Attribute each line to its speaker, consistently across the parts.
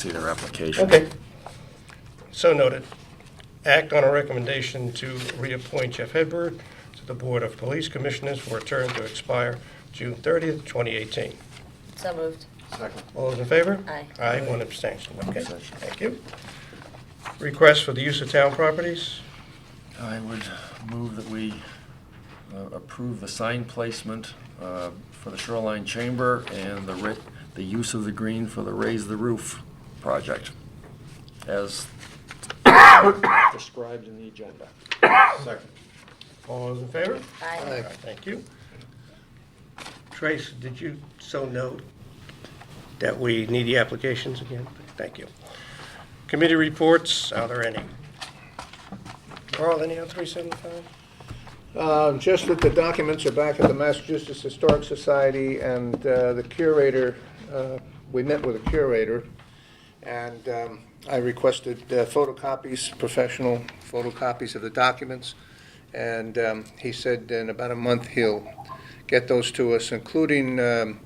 Speaker 1: see their application.
Speaker 2: Okay,
Speaker 3: So noted. Act on a recommendation to reappoint Jeff Hedberg to the Board of Police Commissioners for a term to expire June 30th, 2018.
Speaker 4: So moved.
Speaker 1: Second.
Speaker 3: All those in favor?
Speaker 4: Aye.
Speaker 3: Aye, one abstention. Okay, thank you. Request for the use of town properties.
Speaker 1: I would move that we uh, approve the sign placement uh, for the Shoreline Chamber and the ri, the use of the green for the Raise the Roof project as described in the agenda.
Speaker 5: Second.
Speaker 3: All those in favor?
Speaker 4: Aye.
Speaker 3: All right, Thank you. Trace, did you so note that we need the applications again? Thank you. Committee reports, are there any? Carl, any on 375?
Speaker 2: Uh, just that the documents are back at the Massachusetts Historic Society, and uh, the curator, uh, we met with a curator, and um, I requested uh, photocopies, professional photocopies of the documents, and um, he said in about a month he'll get those to us, including um,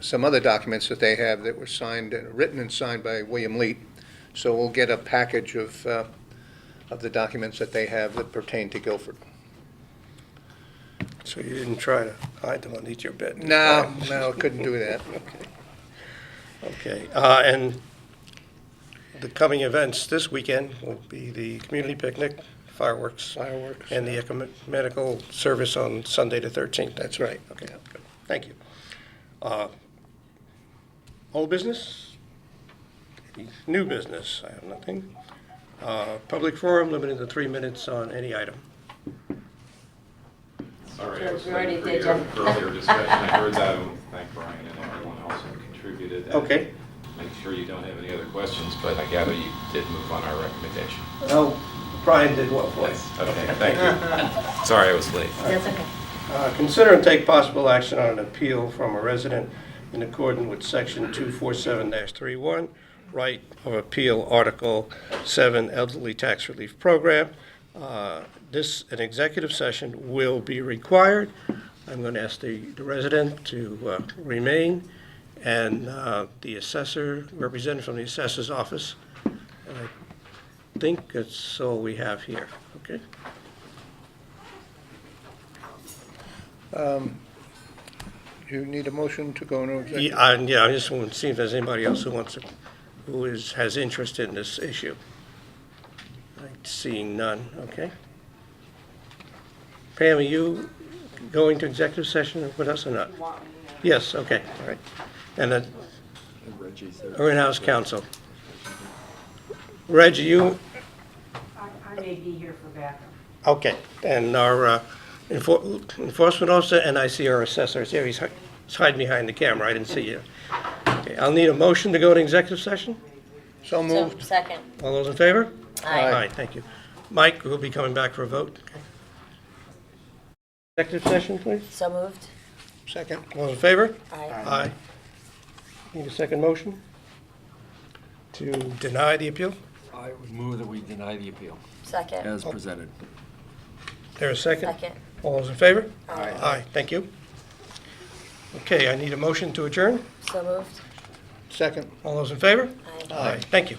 Speaker 2: some other documents that they have that were signed, uh, written and signed by William Leet. So we'll get a package of, uh, of the documents that they have that pertain to Guilford.
Speaker 3: So you didn't try to hide them underneath your bed?
Speaker 2: No, no, couldn't do that.
Speaker 3: Okay, uh, and the coming events this weekend will be the community picnic, fireworks,
Speaker 2: Fireworks.
Speaker 3: and the ecumenical service on Sunday the 13th.
Speaker 2: That's right.
Speaker 3: Okay, good. thank you. Uh, Old business? New business? I have nothing. Uh, Public forum limited to three minutes on any item.
Speaker 5: Sorry,
Speaker 4: Yeah,
Speaker 5: I was
Speaker 4: we already
Speaker 5: waiting for
Speaker 4: did,
Speaker 5: your
Speaker 4: Jeff.
Speaker 5: earlier discussion. I heard that. and Thank Brian and everyone else who contributed. And
Speaker 3: Okay.
Speaker 5: Make sure you don't have any other questions, but I gather you did move on our recommendation.
Speaker 3: Oh, Brian did what for us?
Speaker 5: Okay, thank you. Sorry I was late.
Speaker 4: That's okay.
Speaker 3: Uh, Consider and take possible action on an appeal from a resident in accordance with Section 247-31, right of appeal, Article 7, Elderly Tax Relief Program. Uh, This, an executive session will be required. I'm going to ask the the resident to uh, remain, and uh, the assessor, representative from the assessor's office. And I think that's all we have here, okay?
Speaker 2: You need a motion to go into executive?
Speaker 3: Yeah, I- yeah, I just want to see if there's anybody else who wants to, who is, has interest in this issue. Like, Seeing none, okay. Pam, are you going to executive session with us or not? Yes, okay, all right. And then,
Speaker 1: Reggie's there.
Speaker 3: our in-house counsel. Reggie, you,
Speaker 6: I I may be here for backup.
Speaker 3: okay, and our uh, enfor- enforcement officer, and I see our assessor, is here, he's hi- he's hiding behind the camera, I didn't see you. Okay, I'll need a motion to go to executive session?
Speaker 4: So,
Speaker 2: So moved.
Speaker 4: second.
Speaker 3: All those in favor?
Speaker 4: Aye.
Speaker 3: Aye, thank you. Mike, we'll be coming back for a vote. Okay. Executive session, please.
Speaker 4: So moved.
Speaker 2: Second.
Speaker 3: All those in favor?
Speaker 4: Aye.
Speaker 3: Aye. Need a second motion? To deny the appeal?
Speaker 1: I would move that we deny the appeal
Speaker 4: Second.
Speaker 1: as presented.
Speaker 3: There a second?
Speaker 4: Second.
Speaker 3: All those in favor?
Speaker 4: Aye.
Speaker 3: Aye, thank you. Okay, I need a motion to adjourn.
Speaker 4: So moved.
Speaker 2: Second.
Speaker 3: All those in favor?
Speaker 4: Aye.
Speaker 3: Aye. Thank you.